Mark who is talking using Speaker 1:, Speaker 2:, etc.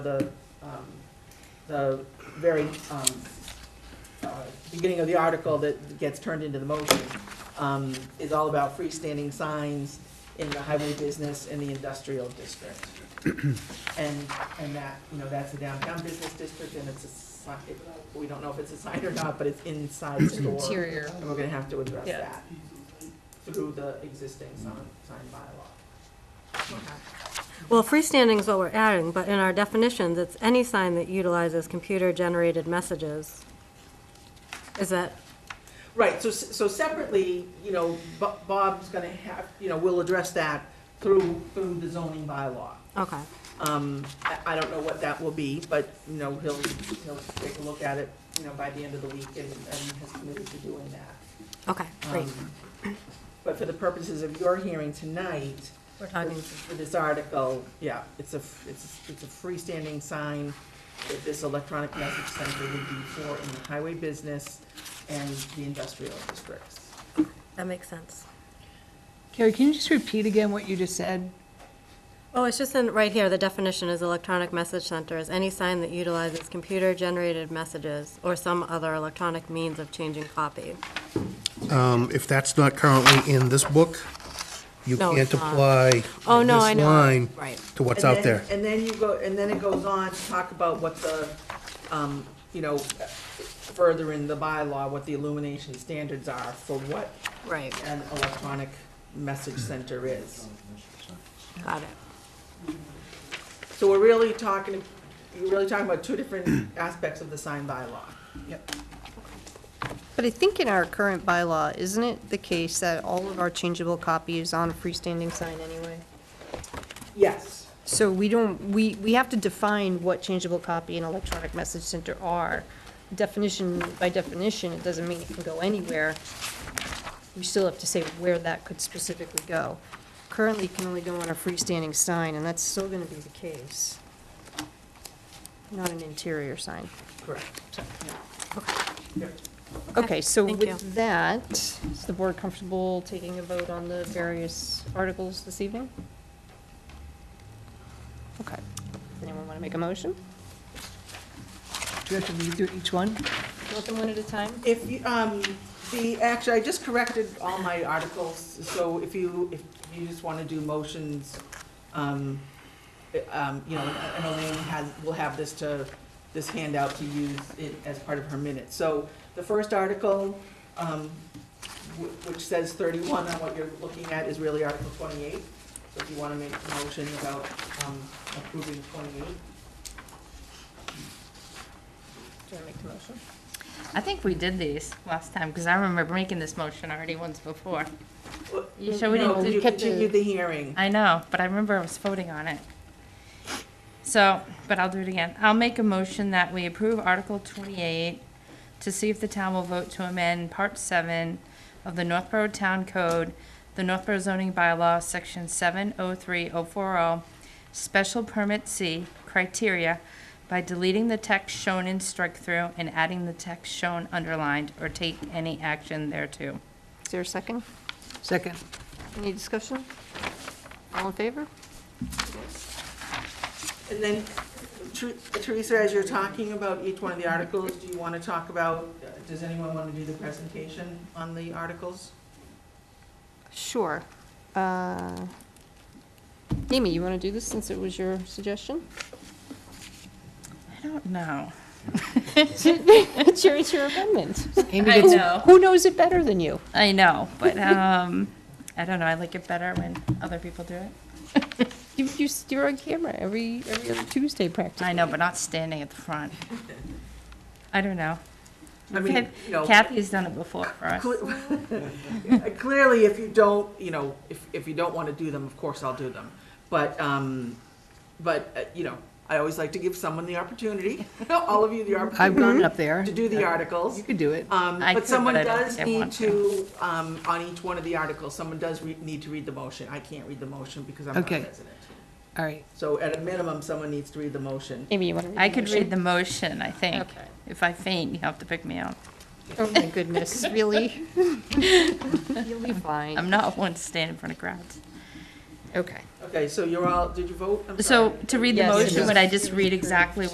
Speaker 1: the, um, the very, um, uh, beginning of the article that gets turned into the motion, um, is all about freestanding signs in the highway business and the industrial district. And, and that, you know, that's the downtown business district and it's a sign, it- we don't know if it's a sign or not, but it's inside store.
Speaker 2: Interior.
Speaker 1: And we're gonna have to address
Speaker 2: Yeah.
Speaker 1: that through the existing sign, sign bylaw. Okay.
Speaker 3: Well, freestanding is what we're adding, but in our definitions, it's any sign that utilizes computer-generated messages. Is that,
Speaker 1: Right, so, so separately, you know, Bo- Bob's gonna have, you know, we'll address that through, through the zoning bylaw.
Speaker 3: okay,
Speaker 1: Um, I, I don't know what that will be, but, you know, he'll, he'll take a look at it, you know, by the end of the week and, and has committed to doing that.
Speaker 3: okay, great.
Speaker 1: Um, But for the purposes of your hearing tonight,
Speaker 3: We're talking,
Speaker 1: for this article, yeah, it's a, f- it's, it's a freestanding sign that this electronic message center would be for in the highway business and the industrial districts.
Speaker 3: that makes sense.
Speaker 2: Carrie, can you just repeat again what you just said?
Speaker 3: Oh, it's just in, right here, the definition is electronic message center is any sign that utilizes computer-generated messages or some other electronic means of changing copy.
Speaker 4: Um, If that's not currently in this book, you
Speaker 3: No,
Speaker 4: can't
Speaker 3: it's not.
Speaker 4: apply
Speaker 3: Oh, no, I
Speaker 4: this
Speaker 3: know.
Speaker 4: line
Speaker 3: Right.
Speaker 4: to what's
Speaker 1: And then-
Speaker 4: out there.
Speaker 1: And then you go, and then it goes on to talk about what the, um, you know, further in the bylaw, what the illumination standards are for what
Speaker 3: Right,
Speaker 1: an electronic message center is.
Speaker 3: got it.
Speaker 1: So we're really talking, you're really talking about two different aspects of the sign bylaw.
Speaker 5: But I think in our current bylaw, isn't it the case that all of our changeable copy is on a freestanding sign anyway?
Speaker 1: Yes.
Speaker 5: So we don't, we, we have to define what changeable copy and electronic message center are. Definition, by definition, it doesn't mean it can go anywhere. We still have to say where that could specifically go. Currently, it can only go on a freestanding sign, and that's still gonna be the case. Not an interior sign.
Speaker 1: Correct.
Speaker 5: Okay, so
Speaker 3: thank you.
Speaker 5: with that, is the board comfortable taking a vote on the various articles this evening? Okay. Does anyone want to make a motion?
Speaker 2: Do we have to read through each one?
Speaker 5: Want them one at a time?
Speaker 1: If you, um, the, actually, I just corrected all my articles, so if you, if you just wanna do motions, um, eh, um, you know, I I know Elaine has, will have this to, this handout to use it as part of her minutes. So the first article, um, wh- which says thirty-one on what you're looking at is really Article twenty-eight. So if you wanna make a motion about, um, approving twenty-eight.
Speaker 5: Do I make the motion?
Speaker 6: I think we did these last time, because I remember making this motion already once before.
Speaker 1: Well,
Speaker 6: You sure we
Speaker 1: no,
Speaker 6: didn't-
Speaker 1: You
Speaker 6: kept the-
Speaker 1: continued the hearing.
Speaker 6: I know, but I remember I was voting on it. So, but I'll do it again. I'll make a motion that we approve Article twenty-eight to see if the town will vote to amend Part seven of the Northborough Town Code, the Northborough zoning bylaw, section seven oh three oh four oh, special permit C, criteria, by deleting the text shown in strike-through and adding the text shown underlined, or take any action thereto.
Speaker 5: Is there a second?
Speaker 2: Second.
Speaker 5: Any discussion? All in favor?
Speaker 1: And then, Ther- Teresa, as you're talking about each one of the articles, do you want to talk about, uh, does anyone want to do the presentation on the articles?
Speaker 5: Sure. Uh, Amy, you want to do this since it was your suggestion?
Speaker 6: I don't know.
Speaker 5: It's your, it's your amendment.
Speaker 6: I know.
Speaker 5: Who knows it better than you?
Speaker 6: I know, but um, I don't know. I like it better when other people do it.
Speaker 5: You, you- you're on camera every, every other Tuesday practically.
Speaker 6: I know, but not standing at the front. I don't know.
Speaker 1: I mean, you know,
Speaker 6: Kathy's done it before for us.
Speaker 1: cle- clearly, if you don't, you know, if, if you don't want to do them, of course I'll do them. But, um, but, uh, you know, I always like to give someone the opportunity, all of you the
Speaker 2: I've gone
Speaker 1: opportunity
Speaker 2: up there.
Speaker 1: Mm-hmm.
Speaker 2: Uh,
Speaker 1: to do the articles.
Speaker 2: You could do it.
Speaker 1: Um,
Speaker 6: I
Speaker 1: but
Speaker 6: could,
Speaker 1: someone
Speaker 6: but I don't
Speaker 1: does
Speaker 6: think I
Speaker 1: need
Speaker 6: want
Speaker 1: to, um, on each one of the articles, someone does re- need to read the motion. I can't read the motion because I'm not
Speaker 2: Okay.
Speaker 1: president.
Speaker 2: All right.
Speaker 1: So at a minimum, someone needs to read the motion.
Speaker 5: Amy, you want to read the
Speaker 6: I could
Speaker 5: motion?
Speaker 6: read the motion, I think.
Speaker 5: Okay.
Speaker 6: If I faint, you have to pick me up.
Speaker 5: Oh my goodness, really? You'll be
Speaker 6: I'm
Speaker 5: fine.
Speaker 6: not one to stand in front of crowds.
Speaker 5: Okay.
Speaker 1: Okay, Okay, so you're all, did you vote? I'm
Speaker 6: So
Speaker 1: sorry.
Speaker 6: to read the
Speaker 5: Yes.
Speaker 6: motion, would I just read exactly